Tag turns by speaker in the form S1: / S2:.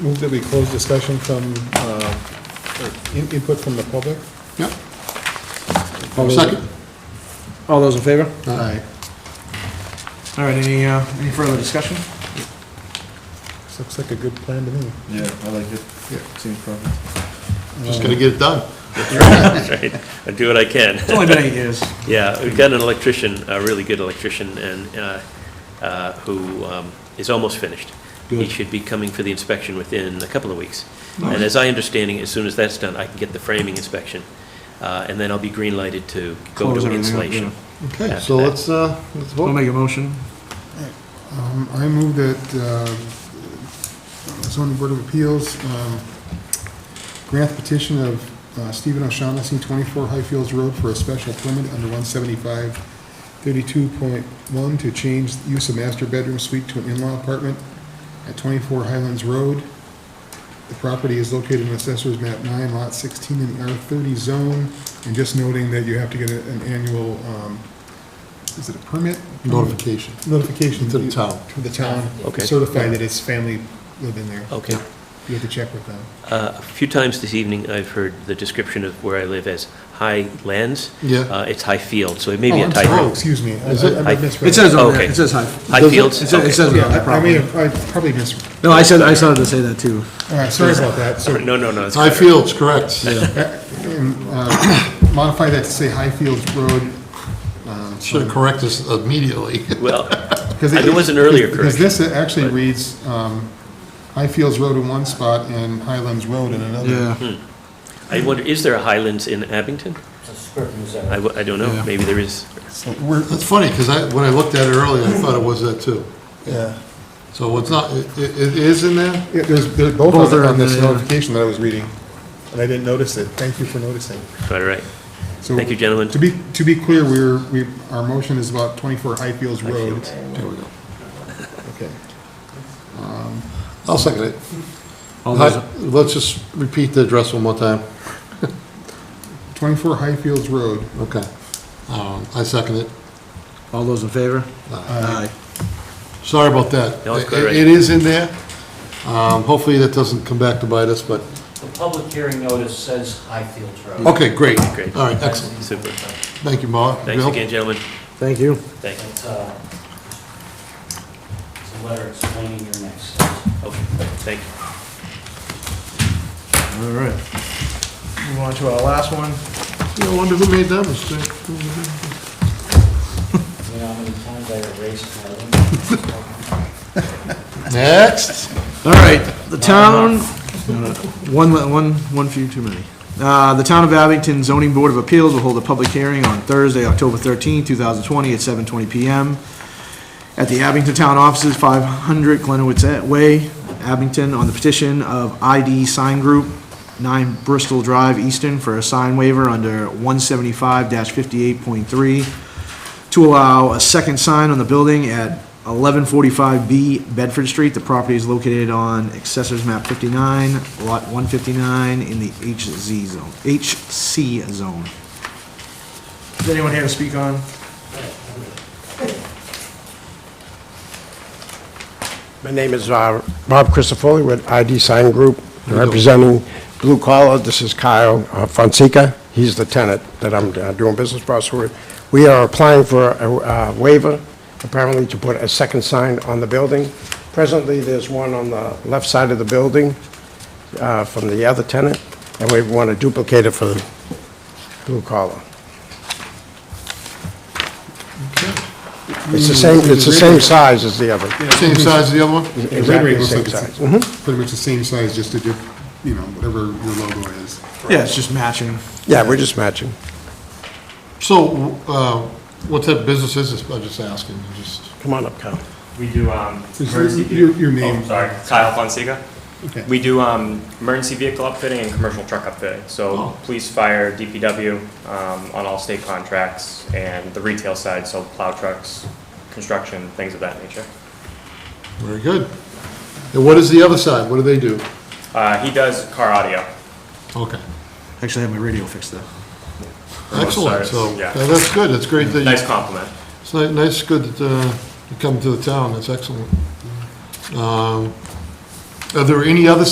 S1: Move that we close discussion from, uh, or in- input from the public.
S2: Yep.
S1: All those-
S2: Second.
S3: All those in favor?
S2: Aye.
S3: All right, any, uh, any further discussion?
S1: This looks like a good plan to me.
S4: Yeah, I like it.
S2: Yeah.
S4: Seems perfect.
S2: Just gonna get it done.
S5: right? I do what I can.
S3: It's only been eight years.
S5: Yeah, we've got an electrician, a really good electrician, and, uh, uh, who um, is almost finished. He
S3: Good.
S5: should be coming for the inspection within a couple of weeks. And as I understanding, as soon as that's done, I can get the framing inspection, uh, and then I'll be green lighted to go
S3: Close everything
S5: to
S3: up,
S5: insulation.
S2: Okay, so let's, uh, let's
S3: We'll
S2: vote.
S3: make a motion.
S2: Um, I move that uh, zoning board of appeals um, grant petition of uh, Stephen O'Shaughnessy, 24 Highfields Road for a special permit under 175-32.1 to change use of master bedroom suite to an in-law apartment at 24 Highlands Road. The property is located in Assessor's Map 9, Lot 16, in the R30 zone, and just noting that you have to get a- an annual, um, is it a permit?
S1: Notification.
S2: Notification.
S1: To the town.
S2: To the town.
S5: Okay.
S2: Certify that it's family live in there.
S5: Okay.
S2: You have to check with them.
S5: Uh, A few times this evening, I've heard the description of where I live as high lands.
S2: Yeah.
S5: Uh, It's high field, so it may
S2: Oh,
S5: be a
S2: I'm sorry. Oh,
S5: typo.
S2: excuse me. I-
S5: Is it?
S2: I- I
S5: I-
S2: misread.
S3: It says on there,
S5: Okay.
S3: it says high.
S5: High fields?
S3: It says, it
S5: Okay.
S3: says
S2: Yeah,
S3: on there,
S2: I I may
S3: probably.
S2: have, I probably mis,
S3: No, I said, I started to say that too.
S2: all right, sorry about that. So
S5: No, no, no. it's
S2: High
S5: better.
S2: Fields, correct. Modify that to say Highfields Road.
S6: Should have corrected us immediately.
S5: Well,
S2: Because
S5: There was an earlier
S2: Because this actually reads um, Highfields Road in one spot and Highlands Road in another.
S3: Yeah.
S5: I wonder, is there a Highlands in Abington? I w- I don't know,
S3: Yeah.
S5: maybe there is.
S2: So we're,
S6: That's funny, because I, when I looked at it earlier, I thought it was that too.
S2: yeah.
S6: So it's not, it, it it is in there?
S2: Yeah, There's, there's both
S3: Both
S2: of them
S3: are
S2: on
S3: on
S2: this
S3: there, yeah.
S2: notification that I was reading, and I didn't notice it. Thank you for noticing.
S5: All right.
S2: So-
S5: Thank you, gentlemen.
S2: To be, to be clear, we're, we, our motion is about 24 Highfields Road.
S6: There we go.
S2: Okay.
S6: I'll second it.
S3: All those,
S6: Hi- Let's just repeat the address one more time.
S2: 24 Highfields Road.
S6: Okay. Um, I second it.
S3: all those in favor? Aye.
S6: Sorry about that.
S5: No, it's
S6: It-
S5: correct.
S6: It is in there. Um, hopefully that doesn't come back to bite us, but,
S7: The public hearing notice says Highfield Road.
S6: okay, great.
S5: Great.
S6: All right, excellent.
S5: Super.
S6: Thank you, Mark.
S5: Thanks
S6: Bill?
S5: again, gentlemen.
S3: Thank you.
S5: Thank you.
S7: It's uh, it's a letter explaining your next steps.
S5: Okay, thank you.
S3: All right. Move on to our last one.
S6: I wonder who made that mistake?
S7: You know how many times I erased my own?
S6: Next.
S3: All right, the town, one, one, one few too many. Uh, The Town of Abington Zoning Board of Appeals will hold a public hearing on Thursday, October 13, 2020, at 7:20 PM at the Abington Town Offices, 500 Glenowitz Way, Abington, on the petition of ID Sign Group, 9 Bristol Drive, Easton, for a sign waiver under 175-58.3 to allow a second sign on the building at 1145B Bedford Street. The property is located on Accessors Map 59, Lot 159, in the HZ zone, HC zone. Is anyone here to speak on?
S8: My name is uh, Bob Christofoli with ID Sign Group, representing Blue Collar. This is Kyle uh, Fonseca. He's the tenant that I'm uh, doing business process with. We are applying for a uh, waiver, apparently to put a second sign on the building. Presently, there's one on the left side of the building uh, from the other tenant, and we want to duplicate it for Blue Collar. It's
S2: Mm,
S8: the same, it's the same size as the other.
S6: Same size as the other one?
S2: Exactly
S8: Exactly the same size. Mm-hmm.
S2: Pretty much the same size, just a dip, you know, whatever your logo is.
S3: Yeah, it's just matching.
S8: Yeah, we're just matching.
S6: So, uh, what type of business is this? I'm just asking, just,
S8: Come on up, Kyle.
S9: We do, um.
S2: Is
S9: emergency
S2: this your-
S9: vehi-
S2: your name?
S9: Oh, Sorry, Kyle Fonseca.
S2: Okay.
S9: We do, um, emergency vehicle upfitting and commercial truck upfitting,
S6: Oh.
S9: so police, fire, DPW, um, on all state contracts, and the retail side, so plow trucks, construction, things of that nature.
S6: very good. And what is the other side? What do they do?
S9: Uh, he does car audio.
S6: Okay,
S3: Actually, I have my radio fixed though.
S6: excellent, so,
S9: sides, yeah.
S6: yeah, that's good, it's great that,
S9: Nice
S6: you-
S9: compliment.
S6: it's ni- nice, good that uh, you come to the town, that's excellent. Um, Are there any other